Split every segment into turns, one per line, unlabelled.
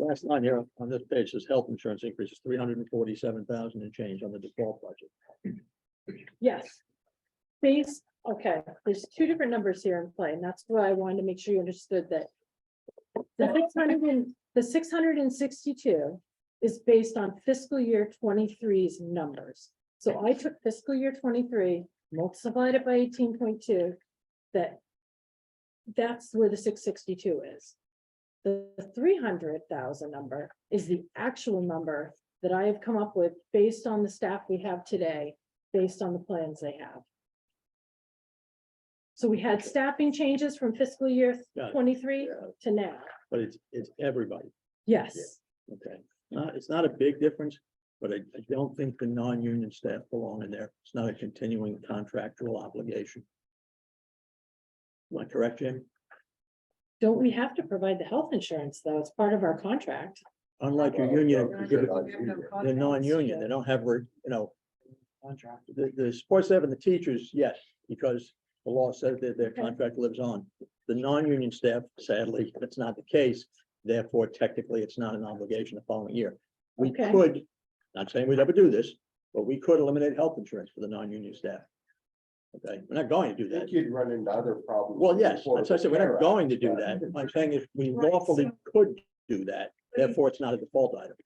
last line here on this page says health insurance increases three hundred and forty-seven thousand and change on the default budget.
Yes. These, okay, there's two different numbers here in play, and that's why I wanted to make sure you understood that. The six hundred and, the six hundred and sixty-two is based on fiscal year 23's numbers. So I took fiscal year twenty-three, multiplied it by eighteen point two, that. That's where the six sixty-two is. The three hundred thousand number is the actual number that I have come up with based on the staff we have today based on the plans they have. So we had staffing changes from fiscal year
Got it.
twenty-three to now.
But it's, it's everybody,
Yes,
okay? Not, it's not a big difference, but I, I don't think the non-union staff belong in there. It's not a continuing contractual obligation. Am I correct, Jim?
don't we have to provide the health insurance though? It's part of our contract.
Unlike your
Well,
union,
no,
you give it-
no, we have no
they're non-union, they don't have, re- you know, the, the sports staff and the teachers, yes, because the law says that their
Okay.
contract lives on. The non-union staff, sadly, that's not the case. Therefore, technically, it's not an obligation the following year. We
Okay.
could, not saying we'd ever do this, but we could eliminate health insurance for the non-union staff. Okay, we're not going to do
I
that.
think you'd run into other problems.
Well, yes,
before
that's what I said, we're
the
not
Care
going to
Act,
do
but-
that. I'm saying if we
Right,
lawfully could do that, therefore it's not a default item.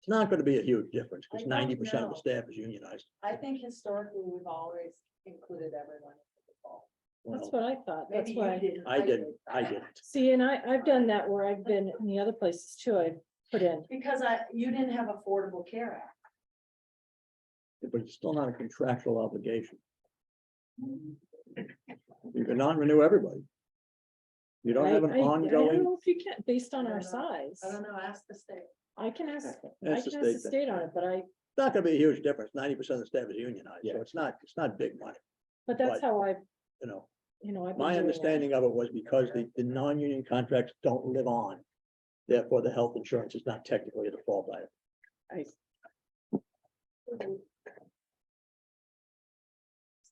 It's not gonna be a huge difference,
I
because
don't
ninety percent of the
know.
staff is unionized.
I think historically, we've always included everyone. in the fall.
That's
Well,
what I thought. That's
Maybe you
why.
didn't,
I didn't, I
did.
didn't.
See, and I, I've done that where I've been in the other places too. I put in.
Because I, you didn't have Affordable Care Act.
but it's still not a contractual obligation. You can non-renew everybody. You don't
I-
have an
I- I don't
ongoing,
know If you can, based on
I
our
don't know.
size,
I don't know, ask the state.
I can ask, I can
that's
ask
the
the
state, thing.
state on it, but I,
It's not gonna be a huge difference, ninety percent of the staff is unionized, so
Yeah.
it's not, it's not big money,
but that's
Right.
how I,
you know.
you know, I've. been
My
doing it.
understanding of it was because the, the non-union contracts don't live on. Therefore, the health insurance is not technically a default item.
It's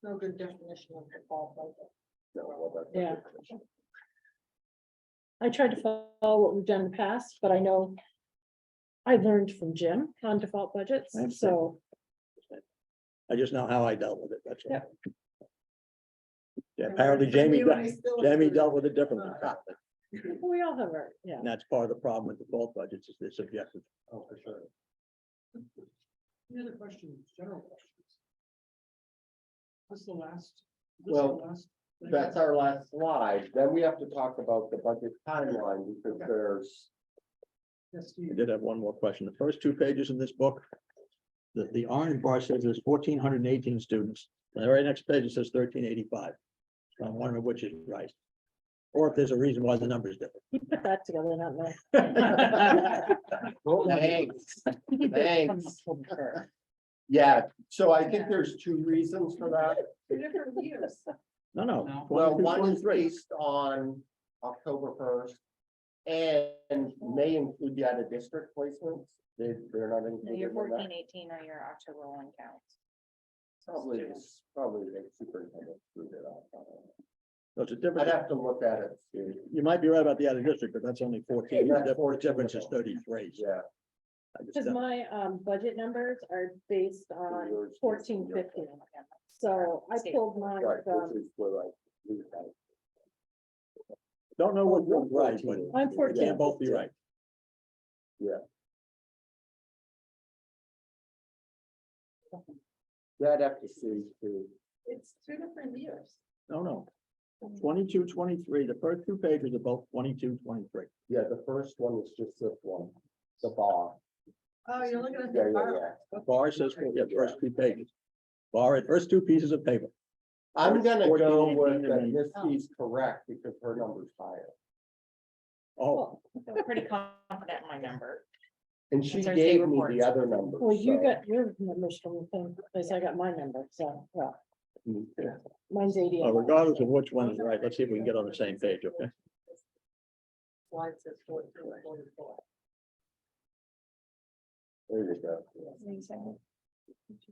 no good definition of default budget.
No, well, that's a
Yeah.
difference.
I tried to follow what we've done in the past, but I know I learned from Jim on default budgets,
That's good.
so
I just know how I dealt with it, that's all. Yeah,
And
apparently Jamie,
you and
de-
I still
Jamie
agree.
dealt with it differently.
we all have our, yeah.
And that's part of the problem with default budgets is they're subjective.
Oh, for sure.
Any other questions, general questions? That's the last. this is the
Well,
last thing.
That's our last slide. Then we have to talk about the budget timeline because
Okay.
there's,
Yes,
I
Steve.
did have one more question. The first two pages in this book, the, the orange bar says there's fourteen hundred and eighteen students. And The very next page it says thirteen eighty-five. So I'm wondering which is right. Or if there's a reason why the number is different.
He put that together, not me.
Oh, thanks, thanks. Yeah, so I think there's two reasons for that.
Two different years.
No, no.
No.
Well,
two,
one is
23.
based on October first. And may include the out of district placements. They, they're not
No, Your
included in
fourteen
that.
eighteen or your October one counts.
Probably, it's probably the superintendent screwed it up.
So it's a
I'd
difference.
have to look at it, too.
You might be right about the other district, but that's only fourteen.
Yeah, that's
The
14
difference is
though.
thirty-three.
yeah.
I just
Because
don't-
my um budget numbers are based on
Yours is-
fourteen fifty. So I pulled mine um,
Right,
from,
um,
which is where I lose that.
Don't know what you're right, but.
14.
I'm
they
14.
Can't both be right.
Yeah, I'd have to see too.
It's two different years.
No, no. 22, 23. the first two pages are both 22, 23.
Yeah, the first one is just this one, the bar.
Oh, you're looking at
Yeah,
the
yeah,
bar.
yeah.
Bar says, yeah, first two pages. Bar, first two pieces of paper.
I'm gonna go
14,
with that
and
Miss
Oh.
C's correct because her number's higher.
Oh,
I'm pretty confident in my number.
And she
That's our state
gave me
reports.
the other number.
well, you got your numbers from the thing, because I got my number, so, well, mine's eighty.
Uh,
well, uh, regardless of which one is right, let's see if we can get on the same page, okay?
Slide says fourteen forty-four.
There you go. yeah.
That's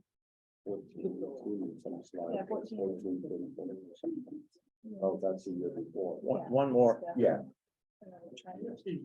14, 14, some slide,
Yeah, 14.
14, 14, 14. Oh, that's the year before.
One, one more.
Yeah.
Yes, Steve.